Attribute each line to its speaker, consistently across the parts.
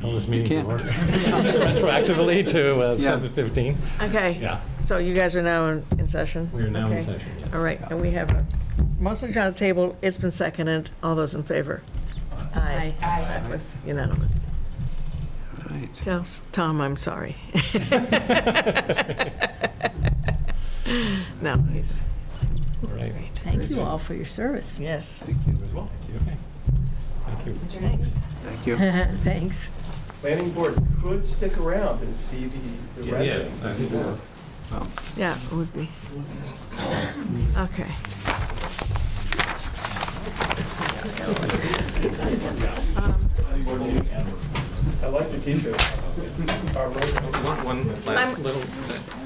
Speaker 1: Call this meeting to
Speaker 2: can't.
Speaker 1: order. Retroactively to uh,
Speaker 2: Yeah.
Speaker 1: 7:15.
Speaker 3: Okay,
Speaker 1: Yeah,
Speaker 3: so you guys are now in in session?
Speaker 1: we are now in
Speaker 3: Okay.
Speaker 1: session, yes.
Speaker 3: All right, and we have a motion on the table, it's been seconded, all those in favor? Aye. That was unanimous.
Speaker 2: Right.
Speaker 3: Tell- Tom, I'm sorry. No, he's,
Speaker 1: All right.
Speaker 4: Thank you all for your service.
Speaker 3: yes.
Speaker 2: Thank you.
Speaker 1: You as well. Okay. Thank you.
Speaker 3: Thanks.
Speaker 2: Thank you.
Speaker 4: Thanks.
Speaker 5: planning board could stick around and see the, the
Speaker 1: Yeah,
Speaker 5: residents.
Speaker 1: I think we're-
Speaker 6: oh,
Speaker 3: Yeah, it would be. Okay.
Speaker 5: I like your t-shirt. Our road-
Speaker 6: One, one last
Speaker 3: I'm-
Speaker 6: little,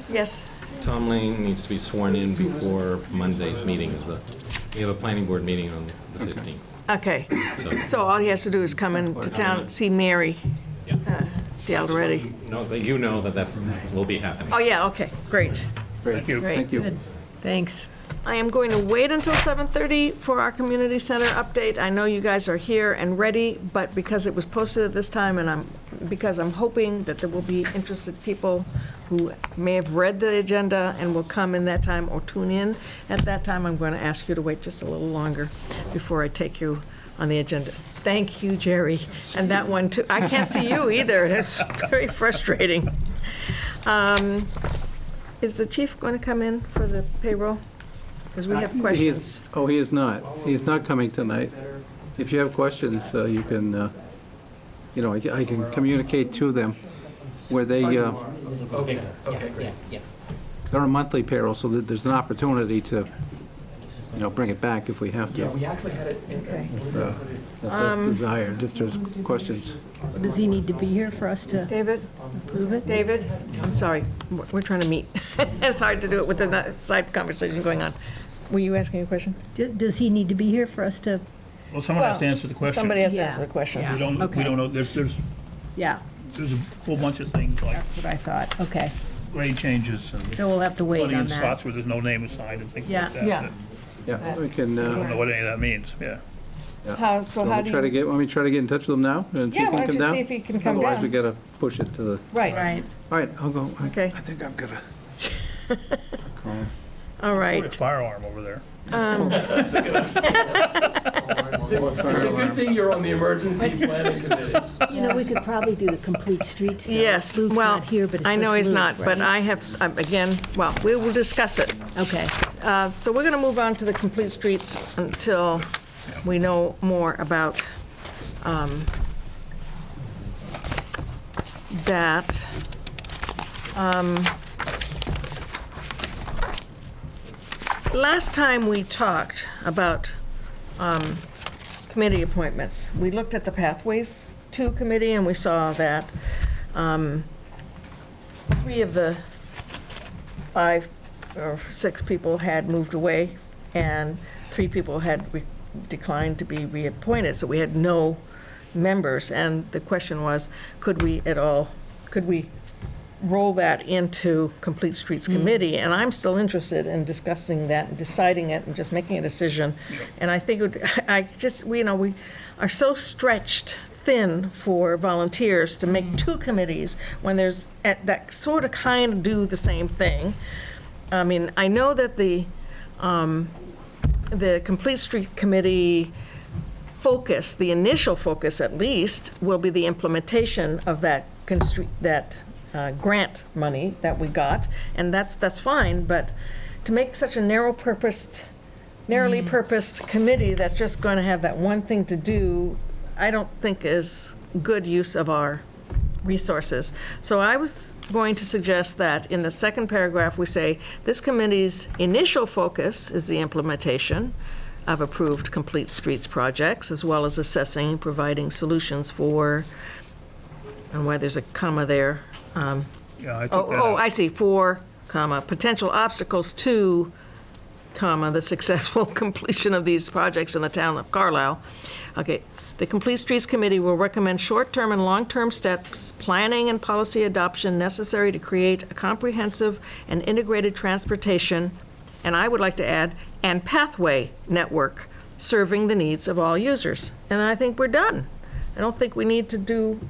Speaker 3: Yes,
Speaker 6: Tom Lane needs to be sworn in before Monday's meeting is the, we have a planning board meeting on the 15th,
Speaker 3: okay.
Speaker 6: so,
Speaker 3: So all he has to do is come into town, see Mary uh,
Speaker 6: yeah.
Speaker 3: Dale Ready.
Speaker 6: No, that you know that that's, will be happening.
Speaker 3: Oh, yeah, okay, great.
Speaker 2: Thank
Speaker 3: Great.
Speaker 2: Thank you.
Speaker 3: Thanks. I am going to wait until 7:30 for our community center update. I know you guys are here and ready, but because it was posted at this time, and I'm, because I'm hoping that there will be interested people who may have read the agenda and will come in that time or tune in at that time, I'm going to ask you to wait just a little longer before I take you on the agenda. Thank you, Jerry, and that one too. I can't see you either, it's very frustrating. Um, is the chief going to come in for the payroll? Because we
Speaker 2: Uh,
Speaker 3: have
Speaker 2: he is-
Speaker 3: questions.
Speaker 2: Oh, he is not. He is not coming tonight. If you have questions, uh, you can, uh, you know, I ca- I can communicate to them where they, uh,
Speaker 5: Okay, okay, great.
Speaker 2: they're on monthly payroll, so that there's an opportunity to, you know, bring it back if we have to.
Speaker 5: Yeah, we actually had it in,
Speaker 3: Okay. Um,
Speaker 2: if, uh, If that's desired, if there's questions.
Speaker 4: Does he need to be here for us to
Speaker 3: David,
Speaker 4: approve it?
Speaker 3: David, I'm sorry, we're we're trying to meet. It's hard to do it with the side conversation going on. Were you asking a question?
Speaker 4: D- Does he need to be here for us to?
Speaker 7: Well, someone has to answer the question.
Speaker 3: Somebody has to
Speaker 4: Yeah.
Speaker 3: answer the questions.
Speaker 7: We don't,
Speaker 4: Okay.
Speaker 7: we don't know, there's, there's,
Speaker 4: Yeah,
Speaker 7: there's a whole bunch of things like
Speaker 4: that's what I thought. Okay,
Speaker 7: grade changes and
Speaker 4: so we'll have to wait on
Speaker 7: audience spots
Speaker 4: that.
Speaker 7: where there's no name assigned and things like
Speaker 4: Yeah.
Speaker 7: that.
Speaker 3: Yeah.
Speaker 7: that-
Speaker 2: Yeah, we can,
Speaker 7: I don't know
Speaker 2: uh,
Speaker 7: what any of that means, yeah.
Speaker 3: How, so
Speaker 2: want
Speaker 3: how
Speaker 2: me try to
Speaker 3: do you?
Speaker 2: get, want me to try to get in touch with him now? and see if he
Speaker 3: Yeah, why
Speaker 2: can
Speaker 3: don't
Speaker 2: come
Speaker 3: you
Speaker 2: down?
Speaker 3: see if he can come
Speaker 2: Otherwise, we
Speaker 3: down?
Speaker 2: gotta push it to the,
Speaker 3: Right,
Speaker 4: Right,
Speaker 2: all right, I'll go. I-
Speaker 3: Okay.
Speaker 2: I think I'm gonna.
Speaker 3: all
Speaker 7: Put a
Speaker 3: right.
Speaker 7: firearm over there.
Speaker 5: It's a good thing you're on the emergency planning committee.
Speaker 4: you know, we could probably do the complete streets. though.
Speaker 3: Yes,
Speaker 4: Luke's
Speaker 3: well,
Speaker 4: not here, but it's
Speaker 3: I know
Speaker 4: just
Speaker 3: he's
Speaker 4: Luke,
Speaker 3: not, but
Speaker 4: right?
Speaker 3: I have, um, again, well, we will discuss it.
Speaker 4: Okay,
Speaker 3: Uh, So we're going to move on to the complete streets until we know more about um, that. Um, Last time we talked about um, committee appointments, we looked at the Pathways to Committee, and we saw that um, three of the five or six people had moved away, and three people had re- declined to be reappointed, so we had no members. And the question was, could we at all, could we roll that into Complete Streets Committee? And I'm still interested in discussing that, and deciding it, and just making a decision. And I think, it would I just, we, you know, we are so stretched thin for volunteers to make two committees when there's, at- that sort of kind of do the same thing. I mean, I know that the, um, the Complete Street Committee focus, the initial focus at least, will be the implementation of that constr- that uh, grant money that we got, and that's, that's fine, but to make such a narrow purposed, narrowly purposed committee that's just going to have that one thing to do, I don't think is good use of our resources. So I was going to suggest that in the second paragraph, we say, this committee's initial focus is the implementation of approved complete streets projects, as well as assessing, and providing solutions for, and why there's a comma there. um,
Speaker 7: Yeah, I took
Speaker 3: Oh,
Speaker 7: that
Speaker 3: oh,
Speaker 7: out.
Speaker 3: I see, for, comma, potential obstacles to, comma, the successful completion of these projects in the town of Carlisle. Okay, the Complete Streets Committee will recommend short-term and long-term steps, planning and policy adoption necessary to create a comprehensive and integrated transportation, and I would like to add, and pathway network serving the needs of all users. And I think we're done. I don't think we need to do